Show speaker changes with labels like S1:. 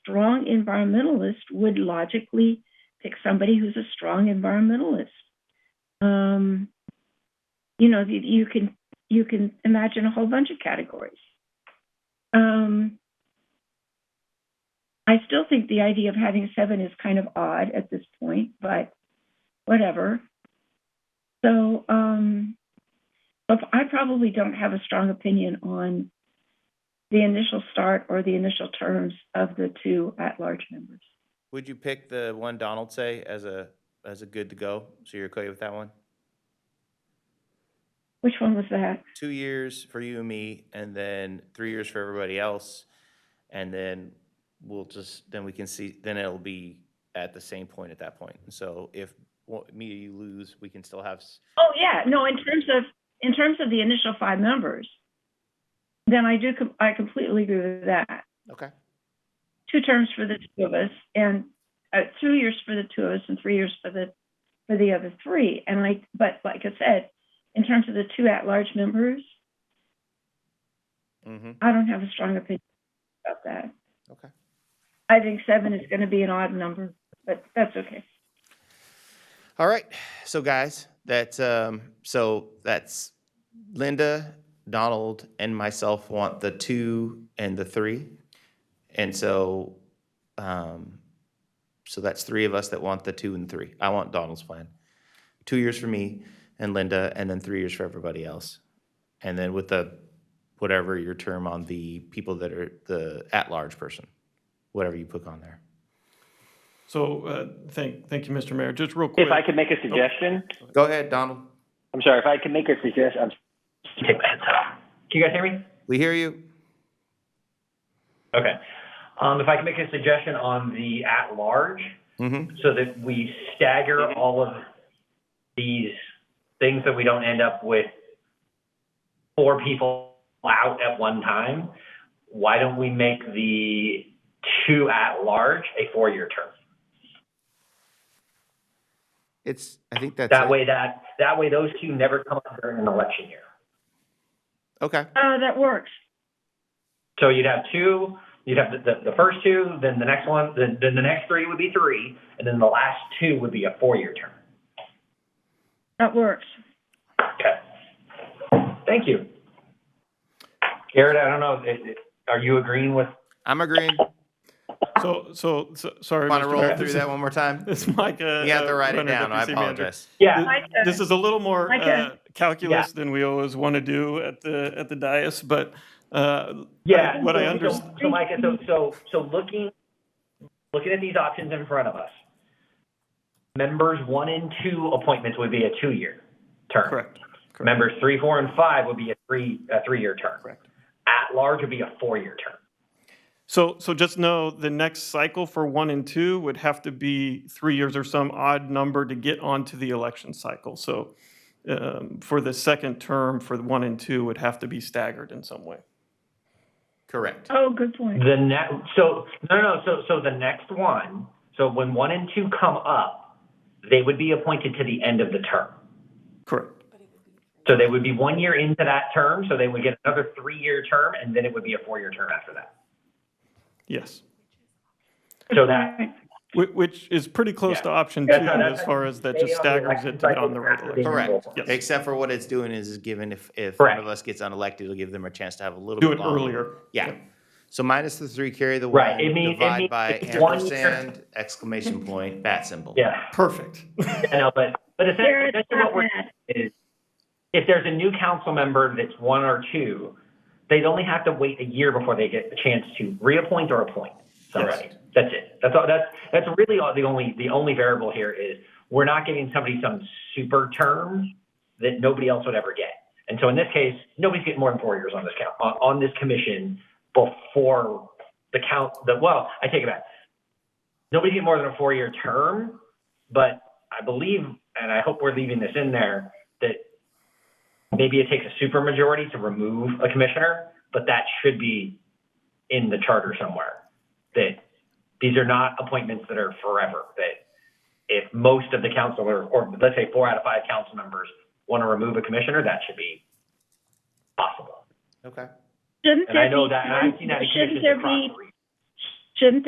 S1: strong environmentalist would logically pick somebody who's a strong environmentalist. Um, you know, you, you can you can imagine a whole bunch of categories. Um, I still think the idea of having seven is kind of odd at this point, but whatever. So, um, but I probably don't have a strong opinion on the initial start or the initial terms of the two at-large members.
S2: Would you pick the one Donald say as a, as a good to go? So you're okay with that one?
S1: Which one was that?
S2: Two years for you and me, and then three years for everybody else. And then we'll just, then we can see, then it'll be at the same point at that point. So if one- me or you lose, we can still have, s-
S1: Oh, yeah, no, in terms of, in terms of the initial five members, then I do, com- I completely agree with that.
S2: okay,
S1: Two terms for the two of us and, uh, two years for the two of us and three years for the, for the other three. And I, but like I said, in terms of the two at-large members,
S2: mm-hmm.
S1: I don't have a strong opinion about that.
S2: Okay.
S1: I think seven is going to be an odd number, but that's okay.
S2: All right, so guys, that's um, so that's Linda, Donald, and myself want the two and the three, and so, um, so that's three of us that want the two and three. I want Donald's plan, two years for me and Linda, and then three years for everybody else, and then with the whatever your term on the people that are the at-large person, whatever you put on there.
S3: So, uh, thank, thank you, Mr. Mayor. Just real quick.
S4: If I could make a suggestion,
S2: Go ahead, Donald.
S4: I'm sorry, if I could make a suggestion, I'm. Take my headset off. Can you guys hear me?
S2: We hear you.
S4: Okay. Um, if I could make a suggestion on the at-large,
S2: Mm-hmm.
S4: so that we stagger all of these things that we don't end up with four people out at one time, why don't we make the two at-large a four-year term?
S2: It's. I think that's
S4: That
S2: it.
S4: way that, that way those two never come up during an election year.
S2: Okay.
S1: Uh, that works.
S4: So you'd have two, you'd have the, the, the first two, then the next one, then, then the next three would be three, and then the last two would be a four-year term.
S1: That works.
S4: Okay. Thank you. Garrett, I don't know, it- it- are you agreeing with?
S2: I'm agreeing.
S3: So, so, so, sorry.
S2: Want to
S3: Mr.
S2: roll
S3: Mayor,
S2: through
S3: this
S2: that
S3: is-
S2: one more time?
S4: Uh,
S3: It's like a.
S2: You have to
S3: uh,
S2: write it
S3: runner
S2: down. I
S3: WC manager.
S2: apologize.
S4: Yeah,
S1: I
S3: Th- This is a little more
S1: I can.
S3: uh, calculus than we always want to do at the, at the dais, but, uh,
S4: yeah.
S3: What I
S4: So-
S3: under-
S4: so- So Micah, so, so, so looking, looking at these options in front of us, members one and two appointments would be a two-year term.
S3: correct. correct.
S4: Members three, four, and five would be a three, a three-year term.
S3: Correct.
S4: At large would be a four-year term.
S3: So, so just know the next cycle for one and two would have to be three years or some odd number to get onto the election cycle. So, um, for the second term for the one and two would have to be staggered in some way.
S2: Correct.
S1: Oh, good point.
S4: The next, so, no, no, so, so the next one, so when one and two come up, they would be appointed to the end of the term.
S3: Correct.
S4: So they would be one year into that term, so they would get another three-year term, and then it would be a four-year term after that.
S3: Yes.
S4: So that.
S3: Whi- Which is pretty close
S4: Yeah.
S3: to option two
S4: That's how-
S3: as
S4: that's how
S3: far as that
S4: they
S3: just
S4: are the
S3: staggers it
S4: election
S3: to get
S4: cycle
S3: on the right
S4: after they
S3: election.
S2: Correct.
S4: enroll.
S3: Yes.
S2: Except for what it's doing is, is giving if, if one
S4: Correct.
S2: of us gets unelected, it'll give them a chance to have a little
S3: Do
S2: bit
S3: it
S2: longer.
S3: earlier.
S2: Yeah. So minus the three, carry the one.
S4: Right. It mean- it
S2: divide
S4: means
S2: by
S4: it's one year.
S2: ampersand, exclamation point, bat symbol.
S4: Yeah,
S3: Perfect.
S4: I know, but, but essentially,
S1: Garrett's
S4: essentially
S1: not
S4: what we're,
S1: bad.
S4: is, if there's a new council member that's one or two, they'd only have to wait a year before they get a chance to reappoint or appoint somebody. That's it. That's all, that's, that's really all, the only, the only variable here is, we're not giving somebody some super term that nobody else would ever get. And so in this case, nobody's getting more than four years on this count, on, on this commission before the count, the, well, I take it back. Nobody's getting more than a four-year term, but I believe, and I hope we're leaving this in there, that maybe it takes a supermajority to remove a commissioner, but that should be in the charter somewhere. That these are not appointments that are forever, that if most of the council or, or let's say four out of five council members want to remove a commissioner, that should be possible.
S2: Okay.
S1: Shouldn't
S4: And I
S1: there
S4: know
S1: be
S4: that, and
S1: one-
S4: I've seen that in
S1: Shouldn't
S4: commissions
S1: there
S4: across
S1: be,
S4: the region.
S1: shouldn't